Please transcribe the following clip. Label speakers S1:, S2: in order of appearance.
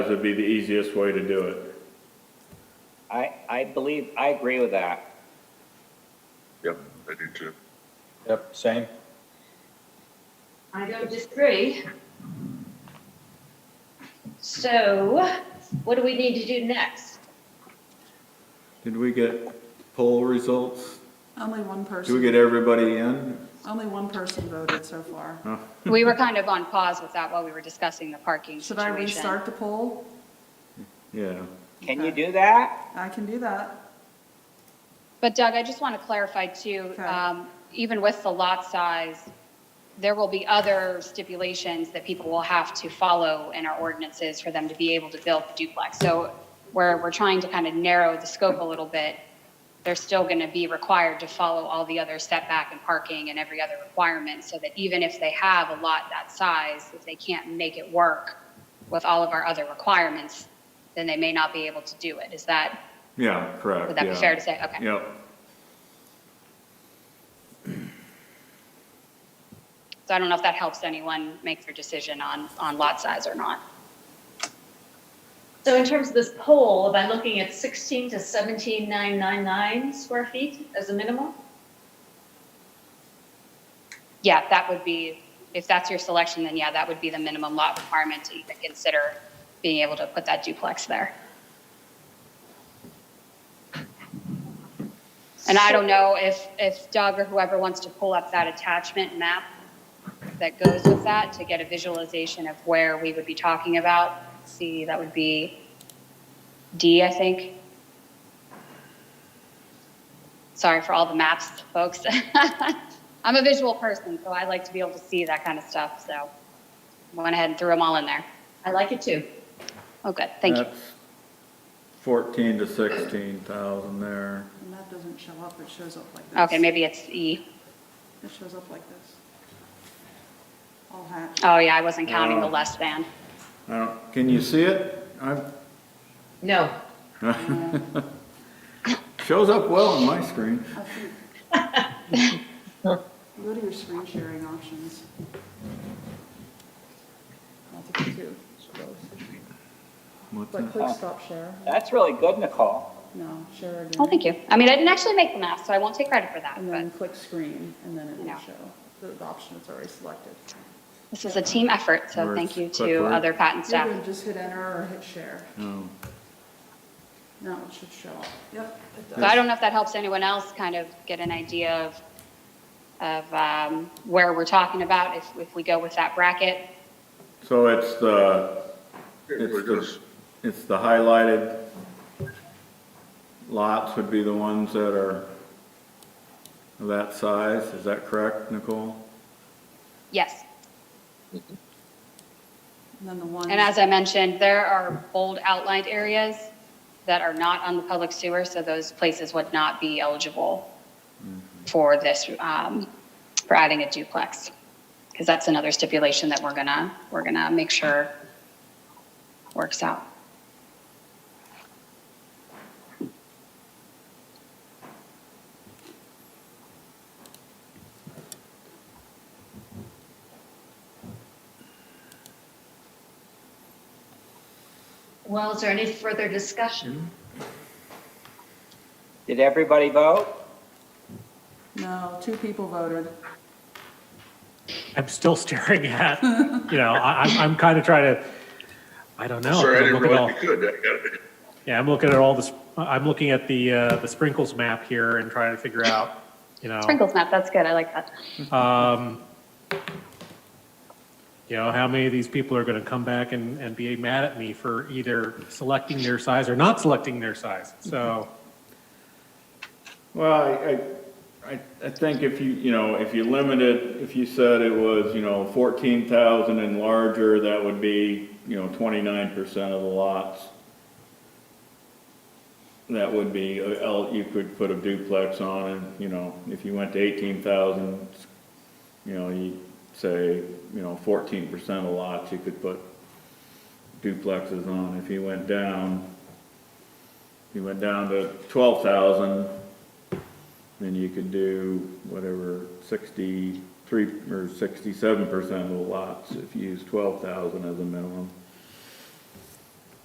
S1: would be the easiest way to do it.
S2: I, I believe, I agree with that.
S3: Yep, I do too.
S4: Yep, same.
S5: I don't disagree. So what do we need to do next?
S6: Did we get poll results?
S7: Only one
S6: Did we
S7: person,
S6: get everybody in?
S7: only one person voted so far.
S8: We were kind of on pause with that while we were discussing the parking
S7: Should I
S8: situation.
S7: restart the poll?
S6: Yeah.
S2: Can you do that?
S7: I can do that.
S8: But Doug, I just want to clarify too,
S7: Okay.
S8: um, even with the lot size, there will be other stipulations that people will have to follow in our ordinances for them to be able to build the duplex. So we're, we're trying to kind of narrow the scope a little bit. They're still going to be required to follow all the other setback and parking and every other requirement so that even if they have a lot that size, if they can't make it work with all of our other requirements, then they may not be able to do it. Is that,
S6: Yeah, correct.
S8: would that be
S6: yeah.
S8: fair to say? Okay.
S6: Yep.
S8: So I don't know if that helps anyone make their decision on, on lot size or not.
S5: So in terms of this poll, am I looking at 16 to 17,999 square feet as a minimum?
S8: Yeah, that would be, if that's your selection, then yeah, that would be the minimum lot requirement to even consider being able to put that duplex there. And I don't know if, if Doug or whoever wants to pull up that attachment map that goes with that to get a visualization of where we would be talking about. See, that would be D, I think. Sorry for all the maps, folks. I'm a visual person, so I like to be able to see that kind of stuff, so went ahead and threw them all in there.
S5: I like it too.
S8: Oh, good, thank you.
S6: That's Fourteen to sixteen thousand there.
S7: And that doesn't show up, it shows up like this.
S8: Okay, maybe it's E.
S7: It shows up like this. All hatched.
S8: Oh, yeah, I wasn't counting the
S6: Oh.
S8: less than.
S6: I don't, can you see it? I,
S5: No.
S6: shows up well on my screen.
S7: I think- Go to your screen sharing options. I'll take you two.
S6: What's
S7: But
S6: that?
S7: click stop share.
S2: That's really good, Nicole.
S7: No, share again.
S8: Oh, thank you. I mean, I didn't actually make the map, so I won't take credit for that,
S7: And
S8: but
S7: then click screen, and then it will
S8: No.
S7: show the the option that's already selected.
S8: this is a team effort, so
S6: Where's
S8: thank you to
S6: clipboard?
S8: other patent
S7: You're
S8: staff.
S7: gonna just hit enter or hit share.
S6: No.
S7: No, it should show up. Yep, it does.
S8: So I don't know if that helps anyone else kind of get an idea of, of um, where we're talking about, if, if we go with that bracket.
S6: So it's the,
S3: It
S6: it's
S3: really does.
S6: the, it's the highlighted lots would be the ones that are of that size. Is that correct, Nicole?
S8: Yes.
S7: And then the one.
S8: And as I mentioned, there are bold outlined areas that are not on the public sewer, so those places would not be eligible for this, um, for adding a duplex. Because that's another stipulation that we're gonna, we're gonna make sure works out.
S5: Well, is there any further discussion?
S2: Did everybody vote?
S7: No, two people voted.
S9: I'm still staring at, you know, I, I'm, I'm kind of trying to, I don't know.
S3: Sorry, I
S9: I'm
S3: didn't
S9: looking at all-
S3: realize you could. I got it.
S9: Yeah, I'm looking at all this, I'm looking at the, uh, the sprinkles map here and trying to figure out, you know,
S8: Sprinkles map, that's good, I like that.
S9: um, you know, how many of these people are going to come back and, and be mad at me for either selecting their size or not selecting their size? So,
S6: Well, I- I, I, I think if you, you know, if you limited, if you said it was, you know, fourteen thousand and larger, that would be, you know, twenty-nine percent of the lots. That would be, uh, el- you could put a duplex on and, you know, if you went to eighteen thousand, you know, you say, you know, fourteen percent of lots, you could put duplexes on. If you went down, you went down to twelve thousand, then you could do whatever, sixty-three or sixty-seven percent of the lots if you use twelve thousand as a minimum.